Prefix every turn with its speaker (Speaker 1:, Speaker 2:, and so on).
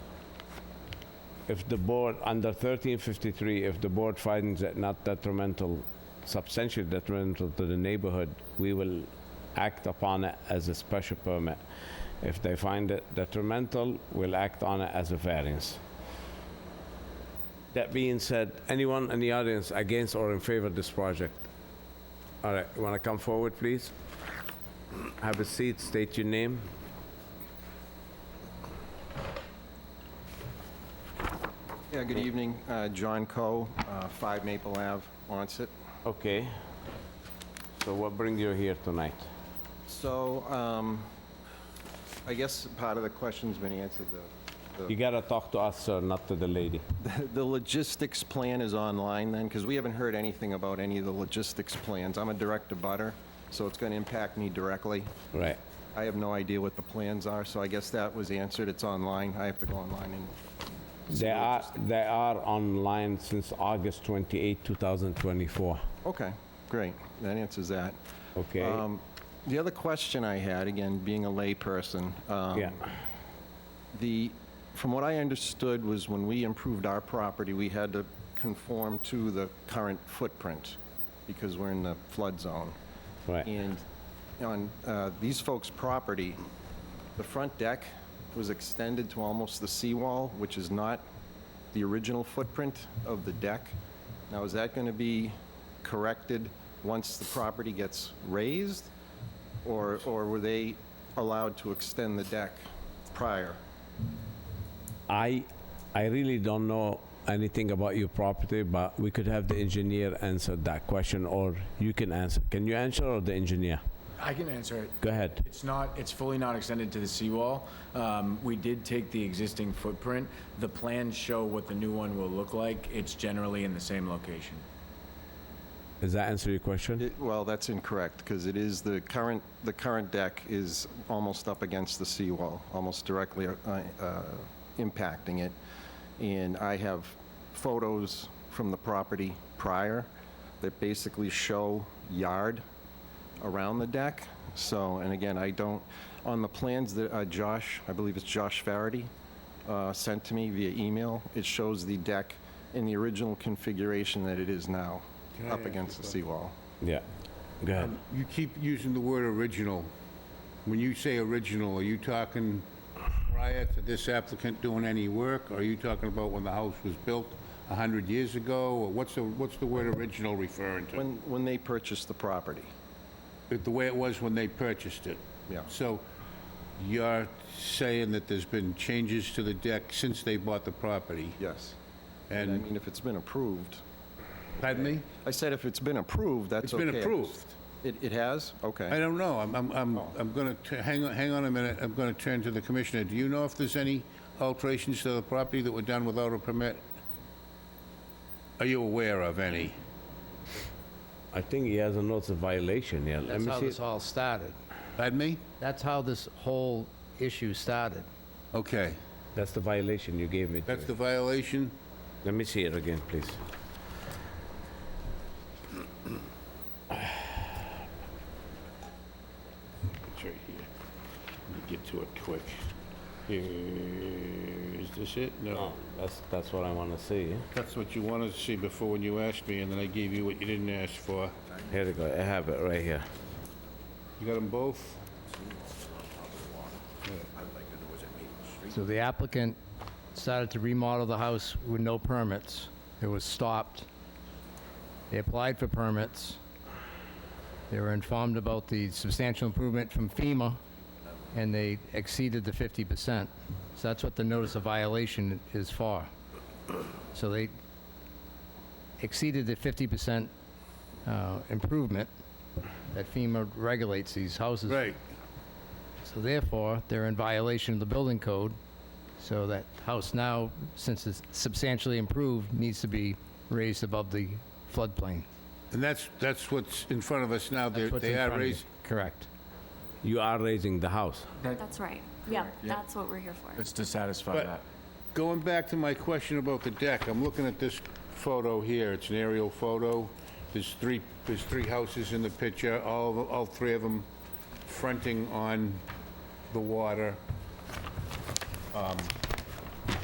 Speaker 1: if the board, under 1353, if the board finds it not detrimental, substantially detrimental to the neighborhood, we will act upon it as a special permit. If they find it detrimental, we'll act on it as a variance. That being said, anyone in the audience against or in favor of this project? All right, you want to come forward, please? Have a seat, state your name.
Speaker 2: Yeah, good evening. Uh, John Coe, uh, 5 Maple Ave, Onset.
Speaker 1: Okay. So what brings you here tonight?
Speaker 2: So um, I guess part of the question's been answered, though.
Speaker 1: You gotta talk to us, sir, not to the lady.
Speaker 2: The- The logistics plan is online then? Because we haven't heard anything about any of the logistics plans. I'm a direct abutter, so it's going to impact me directly.
Speaker 1: Right.
Speaker 2: I have no idea what the plans are, so I guess that was answered. It's online. I have to go online and
Speaker 1: They are, they are online since August 28, 2024.
Speaker 2: Okay, great. That answers that.
Speaker 1: Okay?
Speaker 2: Um, The other question I had, again, being a layperson, um,
Speaker 1: Yeah.
Speaker 2: the, from what I understood was when we improved our property, we had to conform to the current footprint because we're in the flood zone.
Speaker 1: Right.
Speaker 2: And on uh, these folks' property, the front deck was extended to almost the seawall, which is not the original footprint of the deck. Now, is that going to be corrected once the property gets raised? Or, or were they allowed to extend the deck prior?
Speaker 1: I, I really don't know anything about your property, but we could have the engineer answer that question, or you can answer. Can you answer or the engineer?
Speaker 3: I can answer it.
Speaker 1: Go ahead.
Speaker 3: It's not, it's fully not extended to the seawall. Um, We did take the existing footprint. The plans show what the new one will look like. It's generally in the same location.
Speaker 1: Does that answer your question?
Speaker 2: It- Well, that's incorrect, because it is the current, the current deck is almost up against the seawall, almost directly uh, uh, impacting it. And I have photos from the property prior that basically show yard around the deck. So, and again, I don't, on the plans that uh, Josh, I believe it's Josh Farady, uh, sent to me via email, it shows the deck in the original configuration that it is now, up against the seawall.
Speaker 1: Yeah. Go ahead.
Speaker 4: You keep using the word original. When you say original, are you talking prior to this applicant doing any work? Are you talking about when the house was built 100 years ago? Or what's the, what's the word original referring to?
Speaker 2: When, when they purchased the property,
Speaker 4: The way it was when they purchased it?
Speaker 2: Yeah.
Speaker 4: So you're saying that there's been changes to the deck since they bought the property?
Speaker 2: yes. And I
Speaker 4: And,
Speaker 2: mean, if it's been approved,
Speaker 4: pardon me?
Speaker 2: I said if it's been approved, that's
Speaker 4: It's
Speaker 2: okay.
Speaker 4: been approved.
Speaker 2: It, it has?
Speaker 4: I
Speaker 2: Okay.
Speaker 4: don't know. I'm, I'm, I'm, I'm gonna, tu- hang on, hang on a minute. I'm gonna turn to the commissioner. Do you know if there's any alterations to the property that were done without a permit? Are you aware of any?
Speaker 1: I think he has a notice of violation, yeah. Let
Speaker 5: That's
Speaker 1: me
Speaker 5: how
Speaker 1: see.
Speaker 5: this all started.
Speaker 4: Pardon me?
Speaker 5: That's how this whole issue started.
Speaker 4: Okay.
Speaker 1: That's the violation you gave me.
Speaker 4: That's the violation?
Speaker 1: Let me see it again, please.
Speaker 4: It's right here. Let me get to it quick. Is this it?
Speaker 1: Oh, That's, that's what I want to see.
Speaker 4: That's what you wanted to see before when you asked me, and then I gave you what you didn't ask for.
Speaker 1: Here we go, I have it right here.
Speaker 4: You got them both?
Speaker 5: So the applicant started to remodel the house with no permits. It was stopped. They applied for permits. They were informed about the substantial improvement from FEMA, and they exceeded the 50%. So that's what the notice of violation is for. So they exceeded the 50% uh, improvement that FEMA regulates these houses for.
Speaker 4: Right.
Speaker 5: So therefore, they're in violation of the building code, so that house now, since it's substantially improved, needs to be raised above the floodplain.
Speaker 4: And that's, that's what's in front of us now. They're-
Speaker 5: That's what's
Speaker 4: They
Speaker 5: in
Speaker 4: are
Speaker 5: front of you.
Speaker 4: raising,
Speaker 5: Correct.
Speaker 1: You are raising the house.
Speaker 6: That's right. Yeah, that's what we're here for.
Speaker 3: It's to satisfy
Speaker 4: But-
Speaker 3: that.
Speaker 4: Going back to my question about the deck, I'm looking at this photo here, it's an aerial photo. There's three, there's three houses in the picture, all, of- all three of them fronting on the water. Um,